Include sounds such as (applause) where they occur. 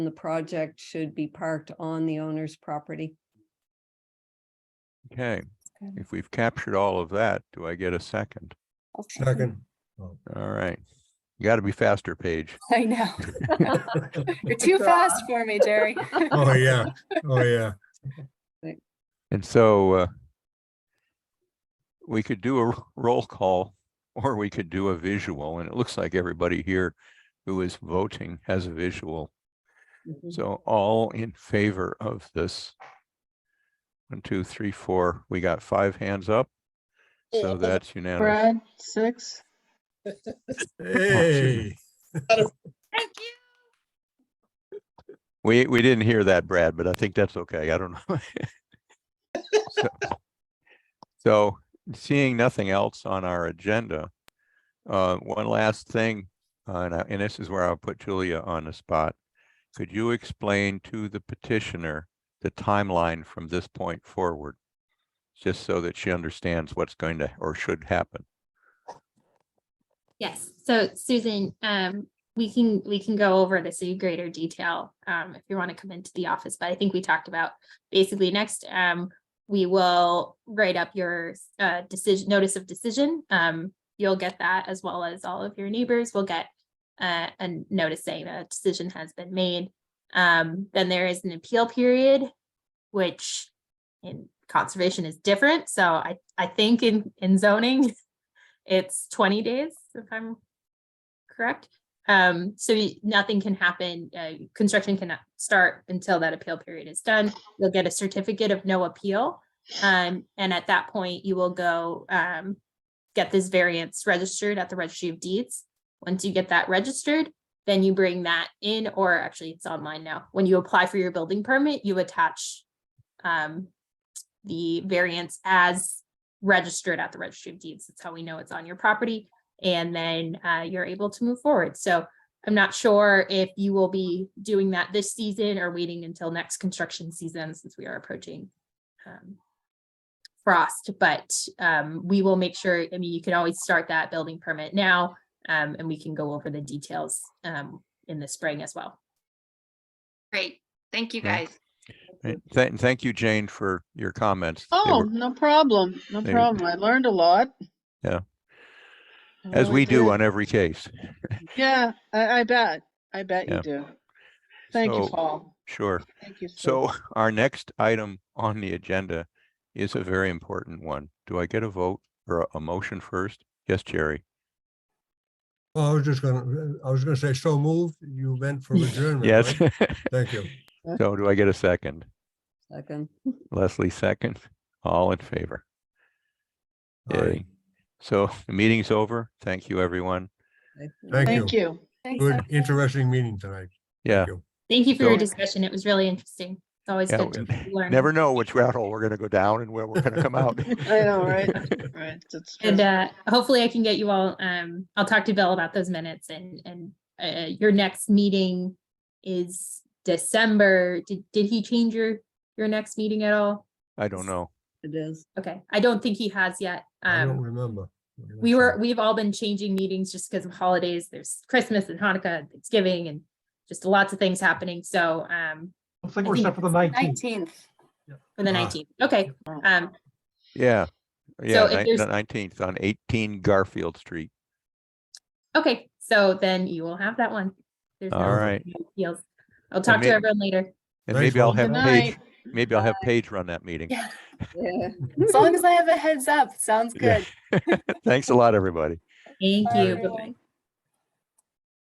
the project should be parked on the owner's property. Okay, Okay. if we've captured all of that, do I get a second? I'll Second. All right. You gotta be faster, Paige. (laughs) I (laughs) know. You're too fast for me, Jerry. Oh, yeah. Oh, yeah. And so uh, we could do a (laughs) r- roll call or we could do a visual and it looks like everybody here who is voting has a visual. So all in favor of this. One, two, three, four. We got five hands up. So that's unanimous. Brad, six. Hey, We, we didn't hear that, Brad, but I think that's okay. I don't know. (laughs) So- So seeing nothing else on our agenda, uh, one last thing, uh, and I- and this is where I'll put Julia on the spot. Could you explain to the petitioner the timeline from this point forward? Just so that she understands what's going to or should happen. Yes, so Susan, um, we can, we can go over this in greater detail, um, if you want to come into the office, but I think we talked about basically next, um, we will write up your, uh, decision, notice of decision. Um, you'll get that as well as all of your neighbors will get, uh, a notice saying that a decision has been made. Um, then there is an appeal period, which in conservation is different, so I, I think in, in zoning, it's twenty days, if I'm correct. Um, so y- nothing can happen, uh, construction cannot start until that appeal period is done. You'll get a certificate of no appeal. Um, and at that point, you will go, um, get this variance registered at the registry of deeds. Once you get that registered, then you bring that in, or actually it's online now. When you apply for your building permit, you attach, um, the variance as registered at the registry of deeds. That's how we know it's on your property. And then uh, you're able to move forward. So I'm not sure if you will be doing that this season or waiting until next construction season since we are approaching um, frost, but um, we will make sure, I mean, you can always start that building permit now um, and we can go over the details um, in the spring as well. Great, thank you Yeah. guys. And thank, thank you, Jane, for your comments. They Oh, were- no problem. No they- problem. I learned a lot. Yeah. I As really we do did. on every case. Yeah, I, I bet. I bet Yeah. you do. Thank you, So- Paul. Sure. Thank you. Sue. So (laughs) our next item on the agenda is a very important one. Do I get a vote or a- a motion first? Yes, Jerry. Well, I was just gonna, I was gonna say, so moved, you meant for (laughs) adjournment. Yes. right? (laughs) Thank you. So do I get a second? Second. Leslie, second. All in favor? Aye. Yay. So the meeting's over. Thank you, everyone. Thank you. Thank you. (laughs) Thanks, Good, everyone. interesting meeting tonight. Yeah. you. Thank you for your So- discussion. It was really interesting. It's always yeah, good to we (laughs) learn. Never know which route we're gonna go down and where we're gonna come (laughs) (laughs) out. I know, right? Right. That's true. And uh, hopefully I can get you all, um, I'll talk to Bill about those minutes and, and, uh, your next meeting is December. Did, did he change your, your next meeting at all? I don't know. It is. Okay, I don't think he has yet. I don't Um, remember. we were, we've all been changing meetings just because of holidays. There's Christmas and Hanukkah, and Thanksgiving and just lots of things happening. So, um, Looks like I we're think set for the nineteenth. Nineteenth. for Uh-huh. the Ah. nineteenth, okay. Um, Yeah. Yeah, if ni- there's- the nineteenth on eighteen Garfield Street. okay, so then you will have that one. There's no All right. appeals. I'll talk to may- everyone later. And Thanks, maybe I'll Paul. have Good Paige, night. maybe I'll have Paige run that meeting. Yeah. Yeah. As long as I have a heads up, sounds Yeah. good. (laughs) Thanks a lot, everybody. Thank Bye, you. everyone. Bye-bye.